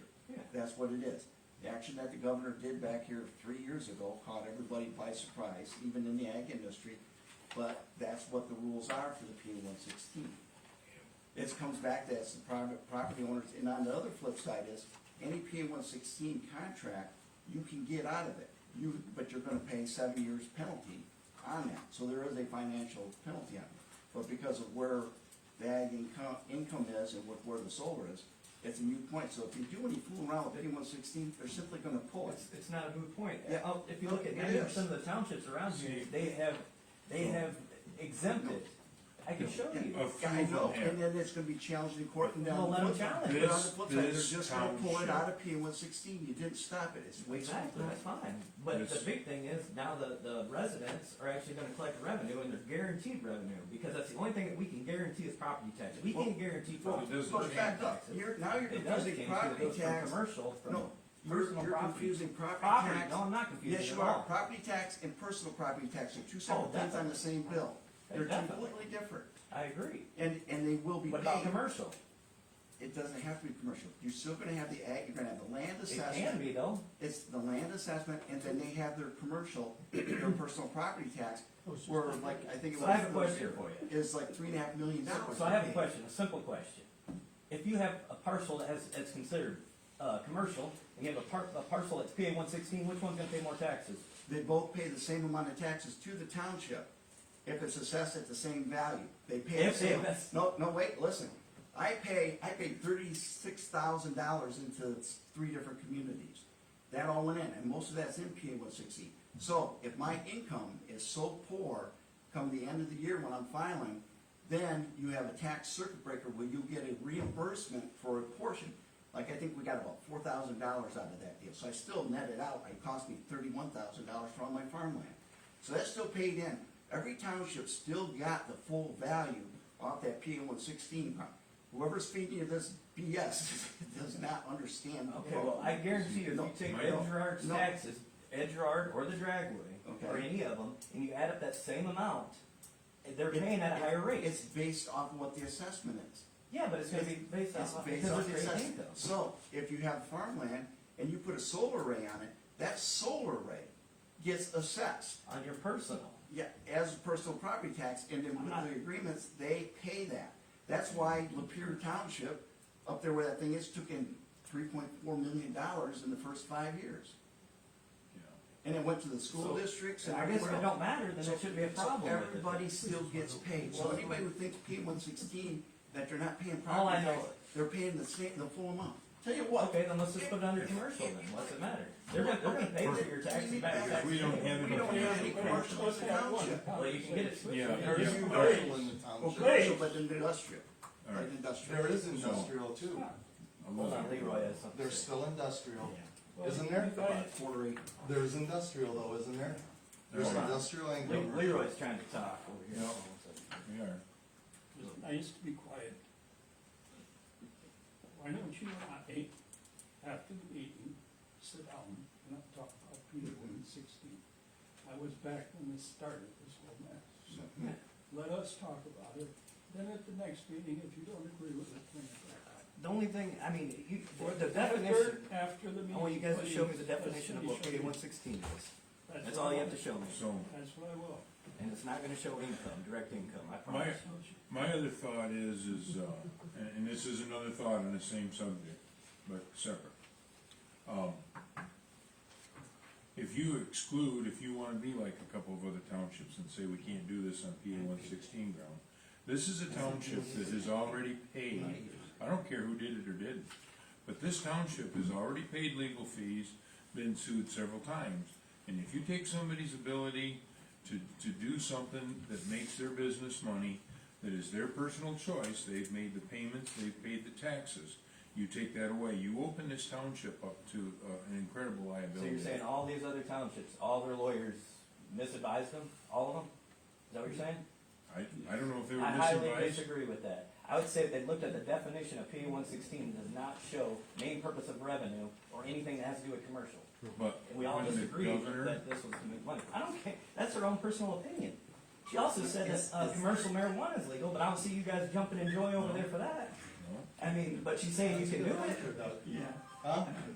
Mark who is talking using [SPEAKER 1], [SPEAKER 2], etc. [SPEAKER 1] that's what it is. The action that the governor did back here three years ago caught everybody by surprise, even in the ag industry, but that's what the rules are for the P one sixteen. This comes back to as the private property owners, and on the other flip side is, any P one sixteen contract, you can get out of it. You, but you're gonna pay seven years penalty on that, so there is a financial penalty on it. But because of where the ag income, income is and with where the solar is, it's a moot point. So if you do any fooling around with any one sixteen, they're simply gonna pull it.
[SPEAKER 2] It's, it's not a moot point.
[SPEAKER 1] Yeah.
[SPEAKER 2] Uh, If you look at
[SPEAKER 1] It
[SPEAKER 2] ninety
[SPEAKER 1] is.
[SPEAKER 2] percent of the townships around here, they have, they have exempted. I can show you.
[SPEAKER 1] Yeah,
[SPEAKER 3] A few
[SPEAKER 1] I
[SPEAKER 3] of
[SPEAKER 1] know,
[SPEAKER 3] them have.
[SPEAKER 1] and then it's gonna be challenged in court and
[SPEAKER 2] Well,
[SPEAKER 1] down. the
[SPEAKER 2] let 'em
[SPEAKER 1] flip side.
[SPEAKER 2] challenge
[SPEAKER 1] But
[SPEAKER 3] it.
[SPEAKER 1] on the flip side,
[SPEAKER 3] This-
[SPEAKER 1] They're just gonna
[SPEAKER 3] this
[SPEAKER 1] pull it
[SPEAKER 3] township-
[SPEAKER 1] out of P one sixteen. You didn't stop it. It's wasteful.
[SPEAKER 2] Exactly, that's fine. But the
[SPEAKER 3] Yes.
[SPEAKER 2] big thing is now the, the residents are actually gonna collect revenue and they're guaranteed revenue because that's the only thing that we can guarantee is property taxes. We
[SPEAKER 1] Well,
[SPEAKER 2] can't guarantee
[SPEAKER 1] Well,
[SPEAKER 2] property.
[SPEAKER 3] doesn't
[SPEAKER 1] well,
[SPEAKER 3] change
[SPEAKER 1] back up.
[SPEAKER 2] taxes.
[SPEAKER 1] You're, now you're
[SPEAKER 2] It does change
[SPEAKER 1] confusing property
[SPEAKER 2] because from
[SPEAKER 1] tax.
[SPEAKER 2] commercial, from
[SPEAKER 1] No, you're,
[SPEAKER 2] personal
[SPEAKER 1] you're
[SPEAKER 2] property.
[SPEAKER 1] confusing property
[SPEAKER 2] Property,
[SPEAKER 1] tax.
[SPEAKER 2] no, I'm not confused
[SPEAKER 1] Yes,
[SPEAKER 2] at
[SPEAKER 1] you are.
[SPEAKER 2] all. Oh,
[SPEAKER 1] Property tax and personal property tax are two separate things on the same bill. They're
[SPEAKER 2] Definitely.
[SPEAKER 1] completely different.
[SPEAKER 2] I agree.
[SPEAKER 1] And, and they will be
[SPEAKER 2] What
[SPEAKER 1] paid.
[SPEAKER 2] about commercial?
[SPEAKER 1] It doesn't have to be commercial. You're still gonna have the ag, you're gonna have the land
[SPEAKER 2] It can
[SPEAKER 1] assessment.
[SPEAKER 2] be though.
[SPEAKER 1] It's the land assessment, and then they have their commercial, their personal property tax, where like, I think it
[SPEAKER 2] So
[SPEAKER 1] was.
[SPEAKER 2] I have a question for you.
[SPEAKER 1] Is like three and a half million dollars.
[SPEAKER 2] So I have a question, a simple question. If you have a parcel that has, that's considered, uh, commercial, and you have a par- a parcel that's PA one sixteen, which one's gonna pay more taxes?
[SPEAKER 1] They both pay the same amount of taxes to the township if it's assessed at the same value. They pay the
[SPEAKER 2] If they
[SPEAKER 1] same.
[SPEAKER 2] invest-
[SPEAKER 1] No, no, wait, listen. I pay, I paid thirty-six thousand dollars into three different communities. That all went in, and most of that's in PA one sixty. So if my income is so poor, come the end of the year when I'm filing, then you have a tax circuit breaker where you get a reimbursement for a portion. Like, I think we got about four thousand dollars out of that deal, so I still netted out, it cost me thirty-one thousand dollars for all my farmland. So that's still paid in. Every township still got the full value off that PA one sixteen. Whoever's feeding you this BS does not understand. the
[SPEAKER 2] Okay, well, I guarantee you, if you
[SPEAKER 1] No,
[SPEAKER 2] take
[SPEAKER 1] no,
[SPEAKER 2] Ed Gerard's
[SPEAKER 1] no.
[SPEAKER 2] taxes, Ed Gerard or the Dragway, or
[SPEAKER 1] Okay.
[SPEAKER 2] any of them, and you add up that same amount, they're
[SPEAKER 1] It-
[SPEAKER 2] paying at a higher rate.
[SPEAKER 1] It's based off what the assessment is.
[SPEAKER 2] Yeah, but it's gonna be based
[SPEAKER 1] It's
[SPEAKER 2] on,
[SPEAKER 1] based
[SPEAKER 2] because
[SPEAKER 1] off
[SPEAKER 2] of
[SPEAKER 1] the
[SPEAKER 2] your
[SPEAKER 1] assessment.
[SPEAKER 2] income.
[SPEAKER 1] So if you have farmland and you put a solar array on it, that solar array gets assessed.
[SPEAKER 2] on your personal.
[SPEAKER 1] Yeah, as personal property tax, and then with the agreements, they pay that. That's why Lapeer Township, up there where that thing is, took in three point four million dollars in the first five years. And it went to the school
[SPEAKER 2] So,
[SPEAKER 1] districts and
[SPEAKER 2] I guess if
[SPEAKER 1] everywhere
[SPEAKER 2] it
[SPEAKER 1] else.
[SPEAKER 2] don't matter, then
[SPEAKER 1] So-
[SPEAKER 2] it shouldn't be a
[SPEAKER 1] so
[SPEAKER 2] problem with it.
[SPEAKER 1] Everybody still gets paid, so anybody who thinks P one sixteen, that they're not paying
[SPEAKER 2] All I
[SPEAKER 1] property tax,
[SPEAKER 2] know-
[SPEAKER 1] they're paying the same, the full amount. Tell you what.
[SPEAKER 2] Okay, then let's just put it under commercial then, what's it matter? They're gonna, they're gonna pay for your taxes back.
[SPEAKER 3] If we don't have
[SPEAKER 1] We
[SPEAKER 3] enough
[SPEAKER 1] don't have any
[SPEAKER 3] commercial
[SPEAKER 1] commercial in the township.
[SPEAKER 2] Well, you can get it.
[SPEAKER 3] Yeah,
[SPEAKER 2] Or
[SPEAKER 3] yeah.
[SPEAKER 2] you-
[SPEAKER 3] commercial
[SPEAKER 4] in the
[SPEAKER 1] Well, commercial, but industrial,
[SPEAKER 3] All right.
[SPEAKER 1] like industrial.
[SPEAKER 4] There is industrial too.
[SPEAKER 2] Hold on, Leroy has something.
[SPEAKER 4] There's still industrial, isn't there?
[SPEAKER 1] About quarter acre.
[SPEAKER 4] There's industrial though, isn't there? There's
[SPEAKER 3] There are.
[SPEAKER 4] industrial and
[SPEAKER 2] Le-
[SPEAKER 4] commercial.
[SPEAKER 2] Leroy's trying to talk over here.
[SPEAKER 3] No. We are.
[SPEAKER 5] It's nice to be quiet. Why don't you uh, and I, after the meeting, sit down and I'll talk about Peter one sixteen? I was back when this started, this whole mess. So Let us talk about it, then at the next meeting, if you don't agree with it, bring it back up.
[SPEAKER 2] The only thing, I mean, you,
[SPEAKER 5] Or
[SPEAKER 2] the
[SPEAKER 5] the
[SPEAKER 2] definition,
[SPEAKER 5] third After the meeting.
[SPEAKER 2] I want you guys to show me the
[SPEAKER 5] please.
[SPEAKER 2] definition of what
[SPEAKER 5] That's
[SPEAKER 2] K
[SPEAKER 5] what
[SPEAKER 2] one sixteen is. That's all you have to show me,
[SPEAKER 3] So,
[SPEAKER 5] That's what I will.
[SPEAKER 2] and it's not gonna show income, direct income, I
[SPEAKER 3] my,
[SPEAKER 2] promise.
[SPEAKER 3] my other thought is, is, uh, and, and this is another thought on the same subject, but separate. Um, If you exclude, if you wanna be like a couple of other townships and say we can't do this on PA one sixteen ground, this is a township that has already paid, I don't care who did it or didn't, but this township has already paid legal fees, been sued several times. And if you take somebody's ability to, to do something that makes their business money, that is their personal choice, they've made the payments, they've paid the taxes, you take that away, you open this township up to, uh, an incredible
[SPEAKER 2] So
[SPEAKER 3] liability.
[SPEAKER 2] you're saying all these other townships, all their lawyers misadvised them, all of them? Is that what you're saying?
[SPEAKER 3] I, I don't know if they were
[SPEAKER 2] I highly
[SPEAKER 3] misadvised,
[SPEAKER 2] disagree with that. I would say if they looked at the definition of P one sixteen, does not show main purpose of revenue or anything that has to do with commercial.
[SPEAKER 3] but
[SPEAKER 2] And we all
[SPEAKER 3] when the
[SPEAKER 2] disagree
[SPEAKER 3] governor,
[SPEAKER 2] that this was to make money. I don't care, that's their own personal opinion. She also said that, uh, commercial marijuana is legal, but I don't see you guys jumping in joy over there for that.
[SPEAKER 3] No.
[SPEAKER 2] I mean, but she's saying you can do it.
[SPEAKER 4] Huh?